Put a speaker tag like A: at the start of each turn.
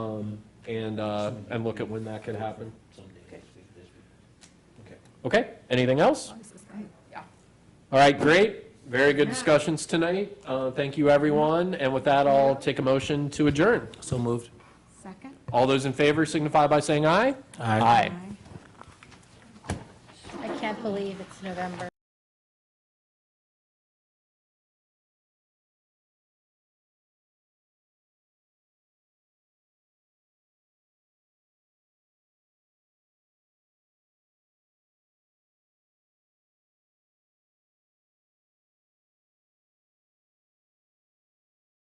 A: um, and, uh, and look at when that could happen.
B: Okay.
A: Okay, anything else?
C: Yeah.
A: All right, great. Very good discussions tonight. Uh, Thank you, everyone. And with that, I'll take a motion to adjourn.
B: So moved.
C: Second?
A: All those in favor signify by saying aye.
B: Aye.
A: Aye.
D: I can't believe it's November.